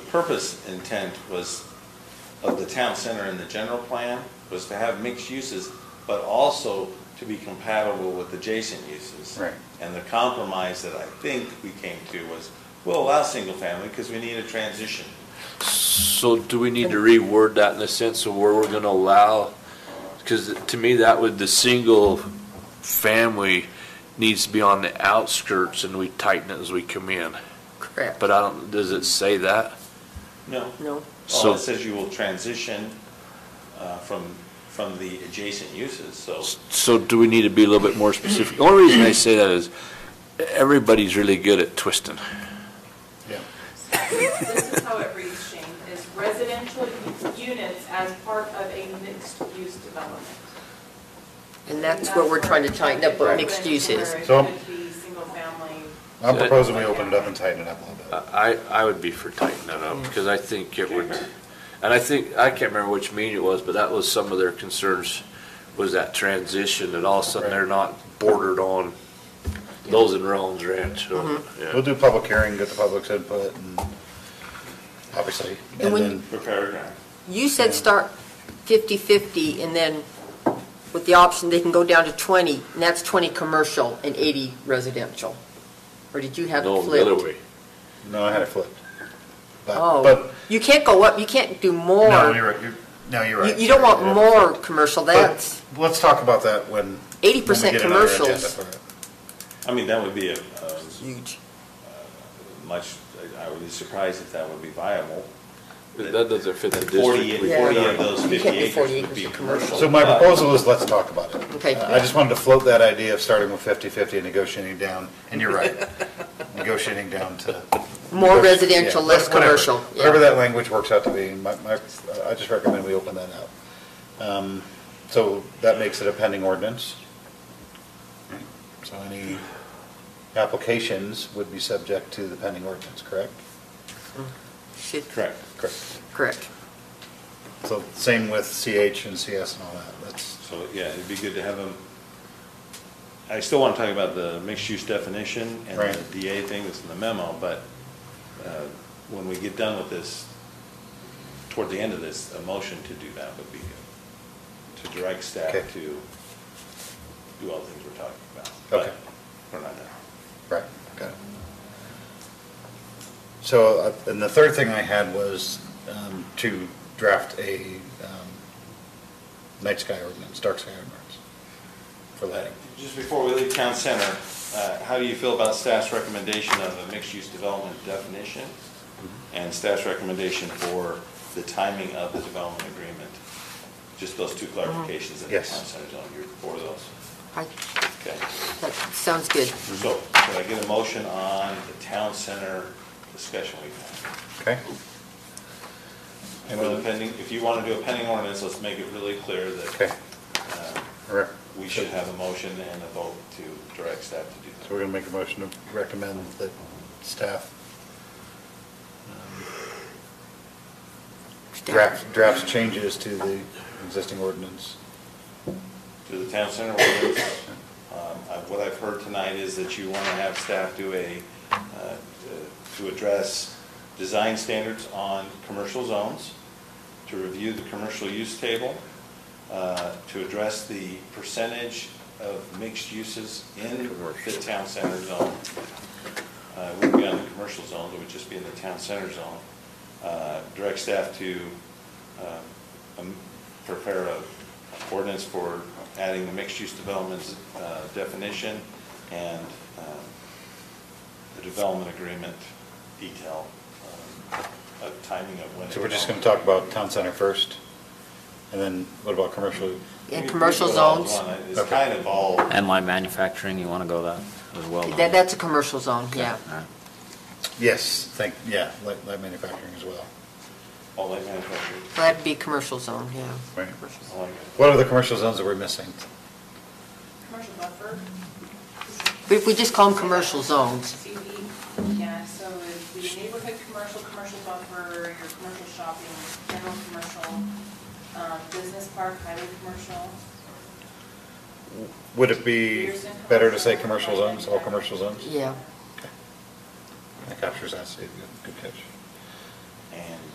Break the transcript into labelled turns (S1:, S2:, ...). S1: purpose intent was, of the town center in the general plan, was to have mixed uses, but also to be compatible with adjacent uses.
S2: Right.
S1: And the compromise that I think we came to was, we'll allow single family, because we need a transition.
S3: So do we need to reword that in the sense of where we're gonna allow? Because to me, that would, the single family needs to be on the outskirts and we tighten it as we come in.
S4: Correct.
S3: But I don't, does it say that?
S1: No,
S4: No,
S1: well,
S3: So,
S1: it says you will transition uh, from, from the adjacent uses, so.
S3: so do we need to be a little bit more specific? The only reason I say that is everybody's really good at twisting.
S5: This is how it reads, Shane, is residential units as part of a mixed-use development.
S4: and that's what we're trying to tighten up, what mixed use is.
S5: Where It
S2: So-
S5: could be single-family.
S2: I'm proposing we open it up and tighten it up a little bit.
S3: I, I would be for tightening that up, because I think it would, and I think, I can't remember which meeting it was, but that was some of their concerns, was that transition, that all of a sudden they're not bordered on those in Rollins Ranch, so,
S2: We'll
S3: yeah.
S2: do public hearing, get the public's input and obviously, and
S4: when-
S2: then,
S1: Per paragraph.
S4: You said start 50/50, and then with the option, they can go down to 20, and that's 20 commercial and 80 residential. Or did you have it
S3: No, the other
S4: flipped?
S3: way.
S2: no, I had it flipped. But,
S4: Oh,
S2: but,
S4: you can't go up, you can't do
S2: no,
S4: more.
S2: you're right, you're, no, you're
S4: You
S2: right.
S4: you don't want
S2: Sorry.
S4: more commercial,
S2: But
S4: that's
S2: Let's talk about that when. when we
S4: 80%
S2: get another agenda
S4: commercials.
S2: for it.
S1: I mean, that would be a, um,
S4: Huge.
S1: much, I would be surprised if that would be viable.
S3: But That doesn't fit the
S1: Forty,
S3: district. we-
S4: Yeah.
S1: forty of those
S4: You
S1: fifty
S4: can't do
S1: acres
S4: 40
S1: would
S4: acres
S1: be
S4: of commercial.
S1: commercial.
S2: So my
S1: but-
S2: proposal is, let's talk about it.
S4: Okay.
S2: Uh, I just wanted to float that idea of starting with 50/50 and negotiating down, and you're right, negotiating down to.
S4: More
S2: negoti-
S4: residential,
S2: yeah,
S4: less
S2: whatever-
S4: commercial, yeah.
S2: Whatever that language works out to be, my, my, uh, I just recommend we open that up. Um, So that makes it a pending ordinance. So any applications would be subject to the pending ordinance, correct?
S4: Should-
S1: Correct.
S2: Correct.
S4: Correct.
S2: So same with CH and CS and all that, that's.
S1: So, yeah, it'd be good to have them, I still want to talk about the mixed-use definition and
S2: Right.
S1: the DA thing that's in the memo, but uh, when we get done with this, toward the end of this, a motion to do that would be good. To direct staff
S2: Okay.
S1: to do all the things we're talking about.
S2: Okay.
S1: But We're not done.
S2: Right, okay. So, uh, and the third thing I had was um, to draft a um, night sky ordinance, dark sky ordinance for lighting.
S1: Just before we leave town center, uh, how do you feel about staff's recommendation of a mixed-use development definition? And staff's recommendation for the timing of the development agreement? Just those two clarifications in the town
S2: Yes.
S1: center zone, you're for those?
S4: I-
S1: Okay.
S4: That sounds good.
S1: So, can I get a motion on the town center discussion we've had?
S2: Okay?
S1: And for the pending, if you want to do a pending ordinance, let's make it really clear
S2: Okay.
S1: that uh,
S2: all right.
S1: we should have a motion and a vote to direct staff to do that.
S2: So we're going to make a motion to recommend that staff um, draft, drafts changes to the existing ordinance.
S1: to the town center ordinance. Um, I- What I've heard tonight is that you want to have staff do a, uh, to address design standards on commercial zones, to review the commercial use table, uh, to address the percentage of mixed uses in the town center zone. Uh, It wouldn't be on the commercial zone, it would just be in the town center zone. Uh, Direct staff to um, um, prepare a ordinance for adding the mixed-use developments uh, definition and um, the development agreement detail um, of timing of when.
S2: So we're just going to talk about town center first, and then what about commercial?
S4: And commercial zones,
S1: It's kind of all,
S6: And light manufacturing, you want to go that as well? don't
S4: that,
S6: you?
S4: that's a commercial zone, yeah.
S6: All right.
S2: Yes, thank, yeah, light, light manufacturing as well.
S1: all light manufacturing.
S4: So that'd be commercial zone, yeah.
S2: Right.
S1: I like it.
S2: What are the commercial zones that we're missing?
S5: Commercial buffer,
S4: But if we just call them commercial zones,
S5: CB, yeah, so it'd be neighborhood commercial, commercial buffer, your commercial shopping, general commercial, um, business park, highway commercial.
S2: Would it be better to say commercial zones, all commercial zones?
S4: yeah.
S2: That captures that, Steve, good, good catch.